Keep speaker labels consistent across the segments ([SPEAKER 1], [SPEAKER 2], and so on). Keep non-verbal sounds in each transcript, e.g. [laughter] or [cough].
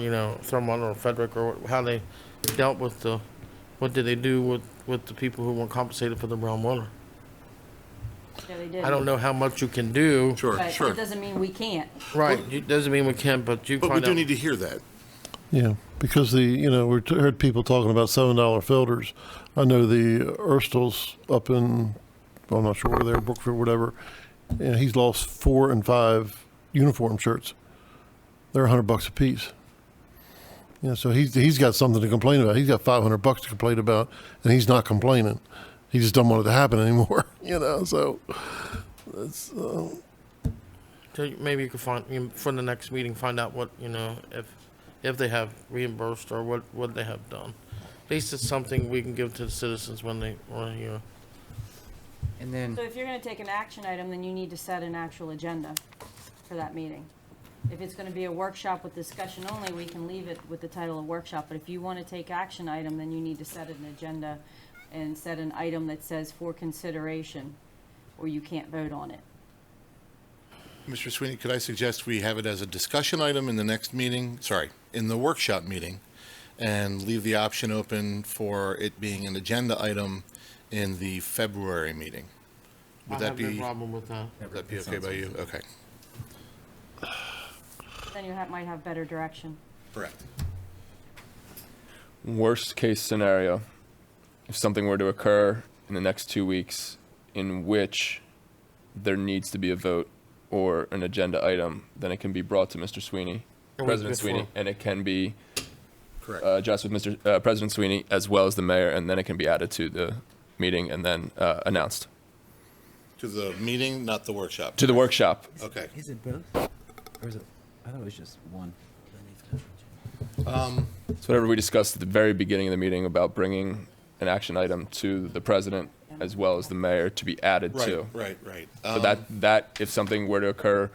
[SPEAKER 1] you know, Thurmond or Frederick or how they dealt with the, what did they do with, with the people who weren't compensated for the brown water?
[SPEAKER 2] No, they didn't.
[SPEAKER 1] I don't know how much you can do.
[SPEAKER 3] Sure,
[SPEAKER 2] But
[SPEAKER 3] sure.
[SPEAKER 2] it doesn't mean we can't.
[SPEAKER 1] Right, it doesn't mean we can, but you
[SPEAKER 3] But we
[SPEAKER 1] find
[SPEAKER 3] do
[SPEAKER 1] out.
[SPEAKER 3] need to hear that.
[SPEAKER 4] Yeah, because the, you know, we heard people talking about $7 filters. I know the Erstles up in, well, I'm not sure where they're, Brookford, whatever, and he's lost four and five uniform shirts. They're 100 bucks a piece. Yeah, so he's, he's got something to complain about. He's got 500 bucks to complain about, and he's not complaining. He just don't want it to happen anymore, [laughs] you know, so.
[SPEAKER 1] So you- Maybe you could find, you- for the next meeting, find out what, you know, if, if they have reimbursed or what, what they have done. At least it's something we can give to the citizens when they, when you,
[SPEAKER 5] And then,
[SPEAKER 2] So if you're gonna take an action item, then you need to set an actual agenda for that meeting. If it's gonna be a workshop with discussion only, we can leave it with the title of workshop, but if you wanna take action item, then you need to set an agenda and set an item that says for consideration, or you can't vote on it.
[SPEAKER 3] Mr. Sweeney, could I suggest we have it as a discussion item in the next meeting, sorry, in the workshop meeting, and leave the option open for it being an agenda item in the February meeting?
[SPEAKER 1] I
[SPEAKER 3] Would that
[SPEAKER 1] have no
[SPEAKER 3] be, would
[SPEAKER 1] problem with that.
[SPEAKER 3] that be okay by you? Okay.
[SPEAKER 2] Then you ha might have better direction.
[SPEAKER 3] Correct.
[SPEAKER 6] worst case scenario, if something were to occur in the next two weeks in which there needs to be a vote or an agenda item, then it can be brought to Mr. Sweeney,
[SPEAKER 1] A week
[SPEAKER 6] President
[SPEAKER 1] before.
[SPEAKER 6] Sweeney, and it can be
[SPEAKER 3] Correct.
[SPEAKER 6] uh, addressed with Mr. Uh, President Sweeney as well as the mayor, and then it can be added to the meeting and then uh, announced
[SPEAKER 3] To the meeting, not the workshop?
[SPEAKER 6] to the workshop.
[SPEAKER 3] Okay.
[SPEAKER 5] is it both? Or is it, I thought it was just one.
[SPEAKER 3] Um,
[SPEAKER 6] It's whatever we discussed at the very beginning of the meeting about bringing an action item to the president as well as the mayor to be added
[SPEAKER 3] Right,
[SPEAKER 6] to.
[SPEAKER 3] right, right.
[SPEAKER 6] So
[SPEAKER 3] Um,
[SPEAKER 6] that that if something were to occur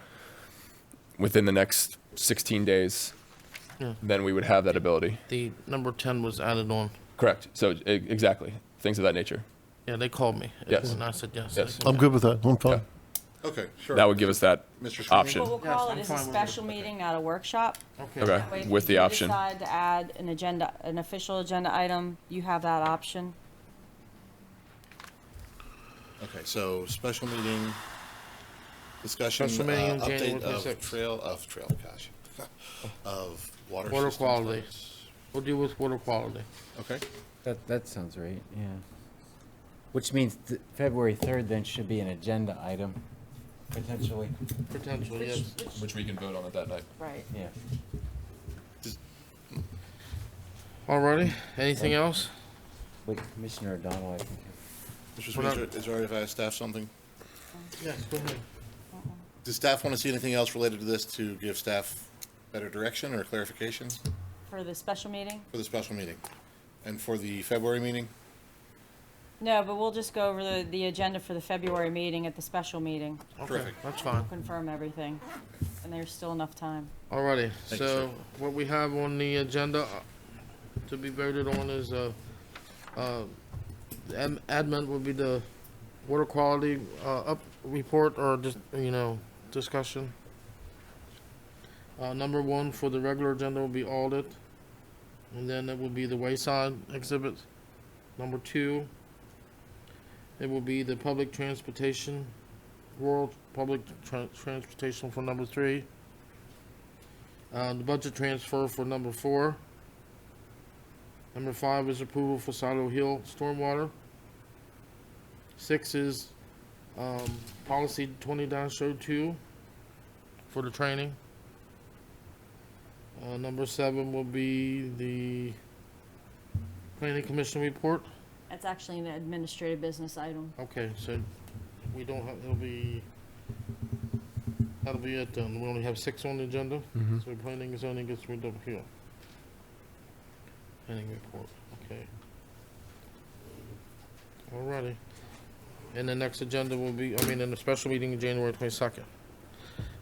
[SPEAKER 6] within the next 16 days, then we would have that ability.
[SPEAKER 1] The number ten was added on.
[SPEAKER 6] Correct. So e- exactly things of that nature.
[SPEAKER 1] Yeah, they called me.
[SPEAKER 6] Yes.
[SPEAKER 1] And I said, yes.
[SPEAKER 6] Yes.
[SPEAKER 4] I'm good with that. I'm fine.
[SPEAKER 3] Okay, sure.
[SPEAKER 6] That would give us that
[SPEAKER 3] Mr. Sweeney?
[SPEAKER 6] option.
[SPEAKER 2] What we'll call it
[SPEAKER 1] I'm
[SPEAKER 2] is a
[SPEAKER 1] fine with it.
[SPEAKER 2] special meeting, not a workshop.
[SPEAKER 6] Okay,
[SPEAKER 2] That way, if
[SPEAKER 6] with
[SPEAKER 2] you
[SPEAKER 6] the
[SPEAKER 2] do
[SPEAKER 6] option.
[SPEAKER 2] Decide to add an agenda, an official agenda item, you have that option.
[SPEAKER 3] Okay, so special meeting, discussion,
[SPEAKER 1] Special meeting in
[SPEAKER 3] uh, update
[SPEAKER 1] January
[SPEAKER 3] of
[SPEAKER 1] 26th.
[SPEAKER 3] trail, of trail, gosh, [laughs] of water
[SPEAKER 1] Water
[SPEAKER 3] system
[SPEAKER 1] quality.
[SPEAKER 3] plans.
[SPEAKER 1] We'll deal with water quality.
[SPEAKER 3] Okay,
[SPEAKER 5] That, that sounds right, yeah. Which means th- February 3rd then should be an agenda item, potentially,
[SPEAKER 1] Potentially, yes.
[SPEAKER 6] which we can vote on at that night.
[SPEAKER 2] Right.
[SPEAKER 5] yeah.
[SPEAKER 1] Alrighty, anything else?
[SPEAKER 5] Wait, Commissioner O'Donnell, I think.
[SPEAKER 3] Mr.
[SPEAKER 1] We're
[SPEAKER 3] Sweeney, is it- is it all right if I ask staff something?
[SPEAKER 1] Yes, go ahead.
[SPEAKER 3] Does staff want to see anything else related to this to give staff better direction or clarification
[SPEAKER 2] For the special meeting?
[SPEAKER 3] for the special meeting? And for the February meeting?
[SPEAKER 2] No, but we'll just go over the, the agenda for the February meeting at the special meeting,
[SPEAKER 1] Okay,
[SPEAKER 3] Terrific.
[SPEAKER 1] that's fine.
[SPEAKER 2] confirm everything, and there's still enough time.
[SPEAKER 1] Alrighty,
[SPEAKER 3] you,
[SPEAKER 1] so what we have on the agenda uh, to be voted on is, uh, uh, the am- admin would be the water quality, uh, up, report or just, you know, discussion. Uh, number one for the regular agenda will be audit. And then it will be the wayside exhibit. Number two, it will be the public transportation, rural public tran- transportation for number three. Uh, the budget transfer for number four. Number five is approval for Silo Hill stormwater. Six is, um, policy twenty dash oh two for the training. Uh, number seven will be the planning commission report.
[SPEAKER 2] That's actually an administrative business item.
[SPEAKER 1] Okay, so we don't have, it'll be, that'll be it then. We only have six on the agenda. So planning and zoning gets rid of here. Planning report, okay. Alrighty. And the next agenda will be, I mean, in the special meeting in January twenty-second.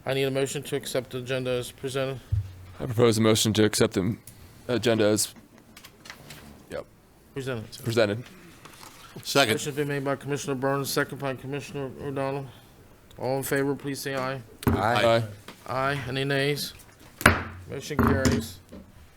[SPEAKER 1] I need a motion to accept the agenda as presented.
[SPEAKER 6] I propose a motion to accept the agenda as
[SPEAKER 1] Presented.
[SPEAKER 6] presented.
[SPEAKER 3] Second.
[SPEAKER 1] Motion's been made by Commissioner Burns, second by Commissioner O'Donnell. All in favor, please say aye.
[SPEAKER 3] Aye.
[SPEAKER 1] Aye. Any nays? Motion carries.